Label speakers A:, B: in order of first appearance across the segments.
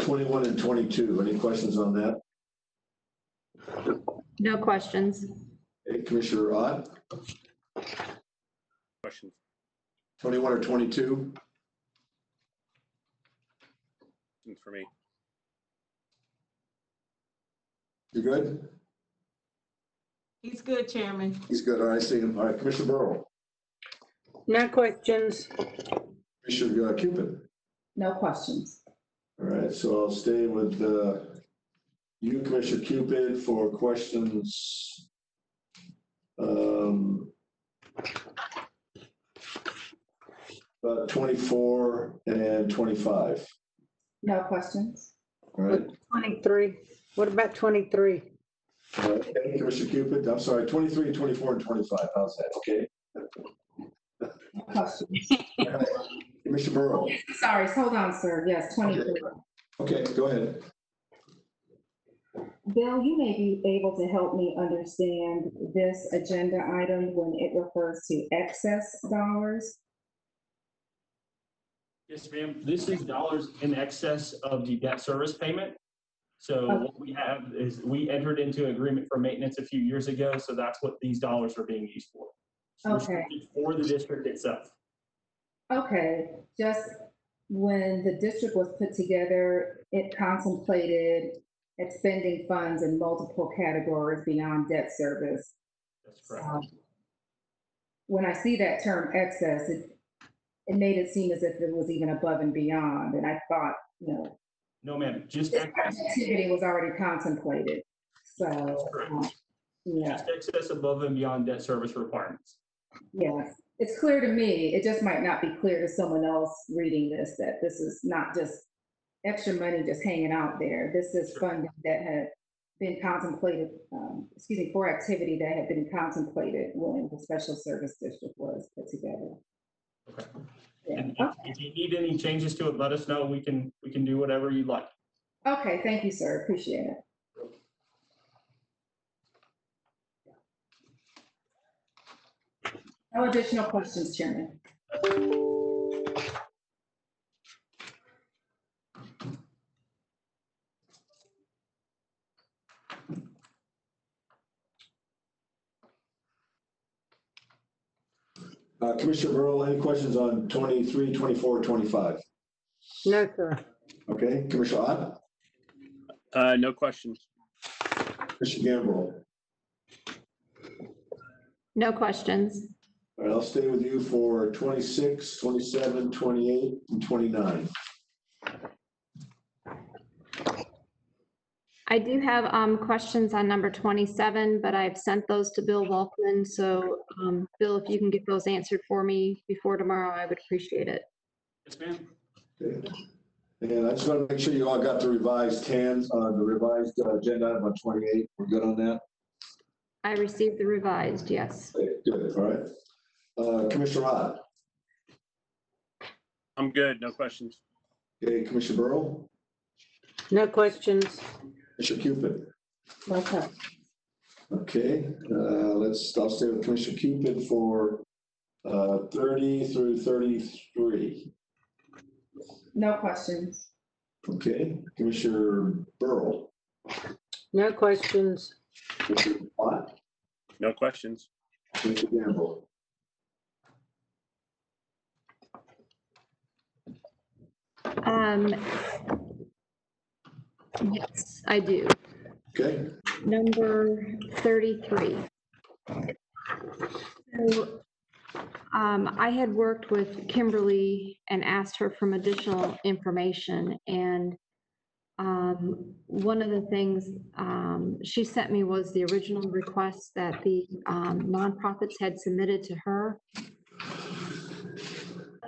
A: 21 and 22, any questions on that?
B: No questions.
A: Hey, Commissioner Ott,
C: Questions?
A: 21 or 22?
C: Questions for me?
A: You good?
D: He's good, Chairman.
A: He's good, all right, I see him. All right, Commissioner Burrow,
E: No questions.
A: Commissioner uh, Cupid.
F: No questions.
A: All right, so I'll stay with uh, you, Commissioner Cupid, for questions. um, About 24 and 25,
F: No questions.
A: all right?
E: 23. What about 23?
A: All right, Uh, thank you, Commissioner Cupid, I'm sorry, 23, 24, and 25, how's that, okay?
F: No questions.
A: Commissioner Burrow,
F: Sorry, hold on, sir. Yes, 23.
A: okay, go ahead.
F: Bill, you may be able to help me understand this agenda item when it refers to excess dollars.
G: Yes, ma'am. This is dollars in excess of the debt service payment. So what we have is we entered into agreement for maintenance a few years ago, so that's what these dollars are being used for.
F: Okay.
G: For the district itself.
F: Okay, just when the district was put together, it contemplated expending funds in multiple categories beyond debt service.
G: That's correct.
F: Um, When I see that term excess, it, it made it seem as if it was even above and beyond, and I thought, you know,
G: No, ma'am, just
F: this
G: excess,
F: activity was already contemplated,
G: That's
F: so,
G: correct.
F: um, yeah,
G: just excess above and beyond debt service requirements.
F: yes. It's clear to me, it just might not be clear to someone else reading this, that this is not just extra money just hanging out there. This is
G: Sure.
F: funding that had been contemplated, um, excuse me, for activity that had been contemplated when the special service district was put together.
G: Okay.
F: Yeah,
G: And if- if you need any changes to it, let us know. We can, we can do whatever you'd like.
F: okay, thank you, sir, appreciate it. No additional questions, Chairman.
A: Uh, Commissioner Burrow, any questions on 23, 24, 25?
E: No, sir.
A: Okay, Commissioner Ott,
C: Uh, no questions.
A: Commissioner Gamble.
B: No questions.
A: All right, I'll stay with you for 26, 27, 28, and 29.
B: I do have um, questions on number 27, but I've sent those to Bill Volkman. So, um, Bill, if you can get those answered for me before tomorrow, I would appreciate it.
G: Yes, ma'am.
A: Okay. And I just want to make sure you all got the revised TANs, uh, the revised uh, agenda item on 28. We're good on that?
B: I received the revised, yes.
A: Okay, Good, all right. Uh, Commissioner Ott,
C: I'm good. No questions.
A: okay, Commissioner Burrow,
E: No questions.
A: Commissioner Cupid.
F: No questions.
A: Okay, uh, let's, I'll stay with Commissioner Cupid for uh, 30 through 33.
F: No questions.
A: Okay, Commissioner Burrow.
E: No questions.
A: Commissioner Watt,
C: No questions.
A: Commissioner Gamble.
B: Um, Yes, I do.
A: Okay,
B: Number 33. So um, I had worked with Kimberly and asked her for additional information, and um, one of the things um, she sent me was the original request that the um, nonprofits had submitted to her.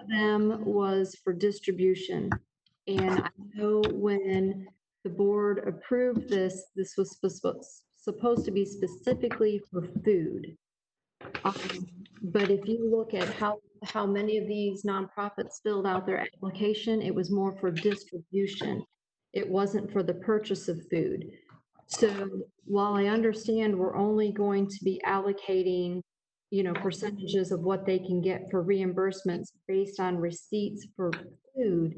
B: Them was for distribution, and I know when the board approved this, this was suppo- supposed to be specifically for food. Um, But if you look at how, how many of these nonprofits filled out their application, it was more for distribution. It wasn't for the purchase of food. So while I understand we're only going to be allocating, you know, percentages of what they can get for reimbursements based on receipts for food,